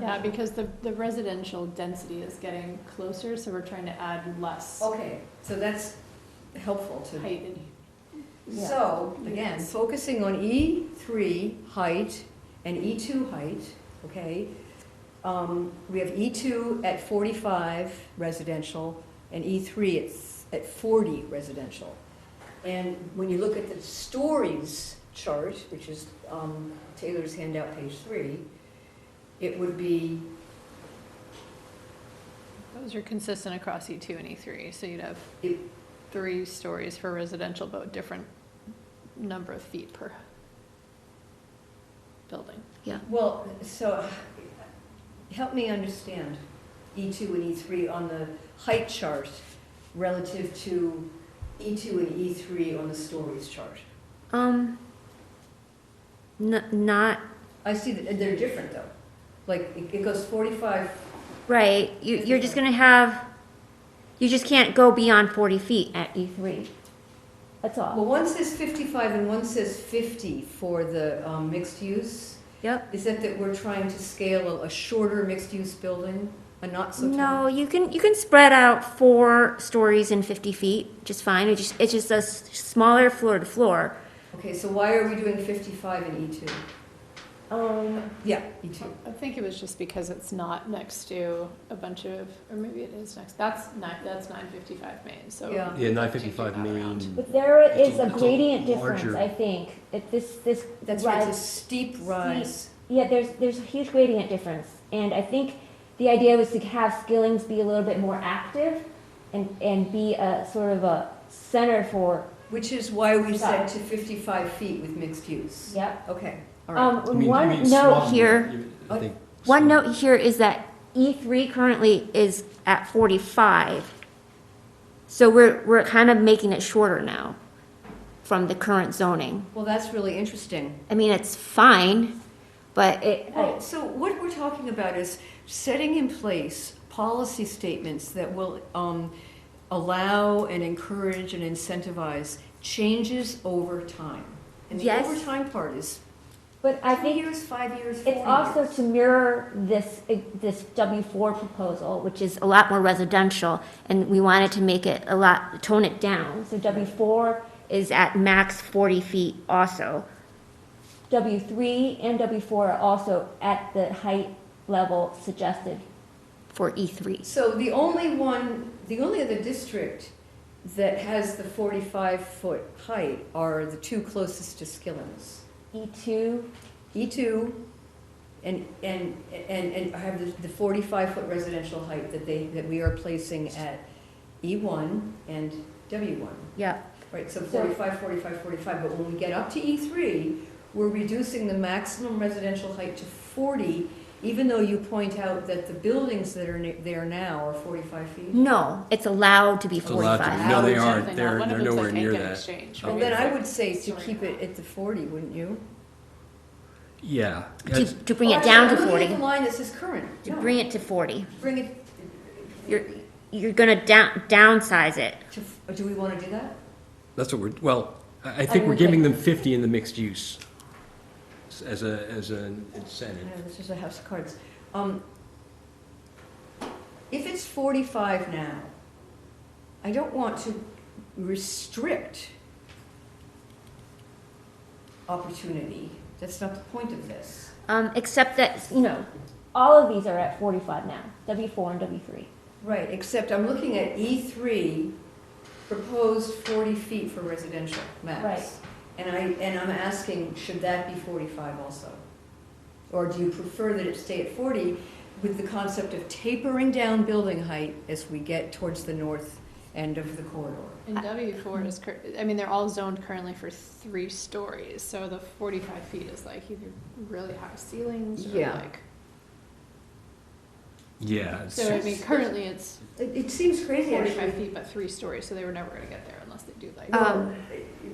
Yeah, because the, the residential density is getting closer, so we're trying to add less Okay, so that's helpful to height in Yeah. So, again, focusing on E three height and E two height, okay? Um, we have E two at forty-five residential and E three at, s- at forty residential. And when you look at the stories chart, which is, um, Taylor's handout, page three, it would be Those are consistent across E two and E three, so you'd have Yep. three stories for residential, but different number of feet per building. Well, so, help me understand E2 and E3 on the height chart relative to E2 and E3 on the stories chart. Um, n- not I see that they're different though. Like, it it goes 45, right. You, you're just gonna have. You just can't go beyond forty feet at E three. That's well, all. one says 55 and one says 50 for the um, mixed use. Yep. Is that that we're trying to scale a- a shorter mixed use building, a not so No, tall? you can you can spread out four stories in fifty feet just fine. It just it's just a s- smaller floor to floor. Okay, so why are we doing 55 in E2? Um. Yeah, E E2. I think it was just because it's not next to a bunch of, or maybe it is next, that's nine, that's nine fifty-five Main, so. Yeah. Yeah, nine fifty-five main. But there It's a- is a it's a gradient difference, larger- I think. It, this this That's right, it's a steep rise. Yeah, there's there's a huge gradient difference, and I think the idea was to have Skillings be a little bit more active, and and be a sort of a center for. Which is why we Yeah. said to 55 feet with mixed use. Yep. Okay, all right. Um, one note here. Uh, One note here is that E three currently is at forty five. So we're we're kind of making it shorter now, from the current zoning. Well, that's really interesting. I mean, it's fine, but it. I- Well, so what we're talking about is setting in place policy statements that will um, allow and encourage and incentivize changes over time. And the Yes. over time part is but I two think years, five years, four It's years. also to mirror this, this W four proposal, which is a lot more residential, and we wanted to make it a lot, tone it down. So W four is at max forty feet also. W three and W four are also at the height level suggested for E three. So the only one, the only other district that has the 45-foot height are the two closest to Skilling's. E two, E2 and, and, and, and have the- the 45-foot residential height that they, that we are placing at E1 and W1. yeah, Right, so 45, 45, 45, but when we get up to E3, we're reducing the maximum residential height to 40, even though you point out that the buildings that are ne- there now are 45 feet. no, it's allowed to be It's allowed to be. forty-five. No, they Or aren't. something, They're- one of they're them's like nowhere near Hankin that. Exchange, Well, right? then I It's would like say to right keep now. it at the 40, wouldn't you? Yeah. To, that's- to bring it down to I'm looking at forty, the line that says current. to No, bring it to forty. Bring it You're, you're gonna down, downsize it. to, f- do we want to do that? That's what we're, well, I, I think we're would giving like- them fifty in the mixed use s- as a, as an incentive. No, this is a house of cards. Um, If it's 45 now, I don't want to restrict opportunity. That's not the point of this. Um, except that, you know, all of these are at forty-five now, W four and W three. Right, except I'm looking at E3, proposed 40 feet for residential max. Right. And I, and I'm asking, should that be 45 also? Or do you prefer that it stay at 40 with the concept of tapering down building height as we get towards the north end of the corridor? And W four is, cur- I mean, they're all zoned currently for three stories, so the forty-five feet is like either really high ceilings or Yeah. like. Yeah. it's- So I mean, currently it's It, it seems crazy forty-five actually. feet but three stories, so they were never gonna get there unless they do like. Uh, Well,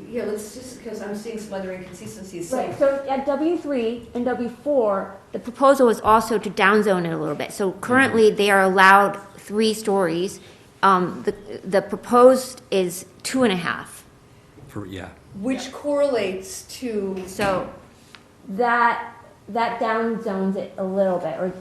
Yeah, let's just, because I'm seeing some other inconsistencies, so Right, so at W three and W four, the proposal is also to downzone it a little bit. So currently, they are allowed three stories. Um, the, the proposed is two and a half. For, yeah. which correlates to So that, that downzones it a little bit, or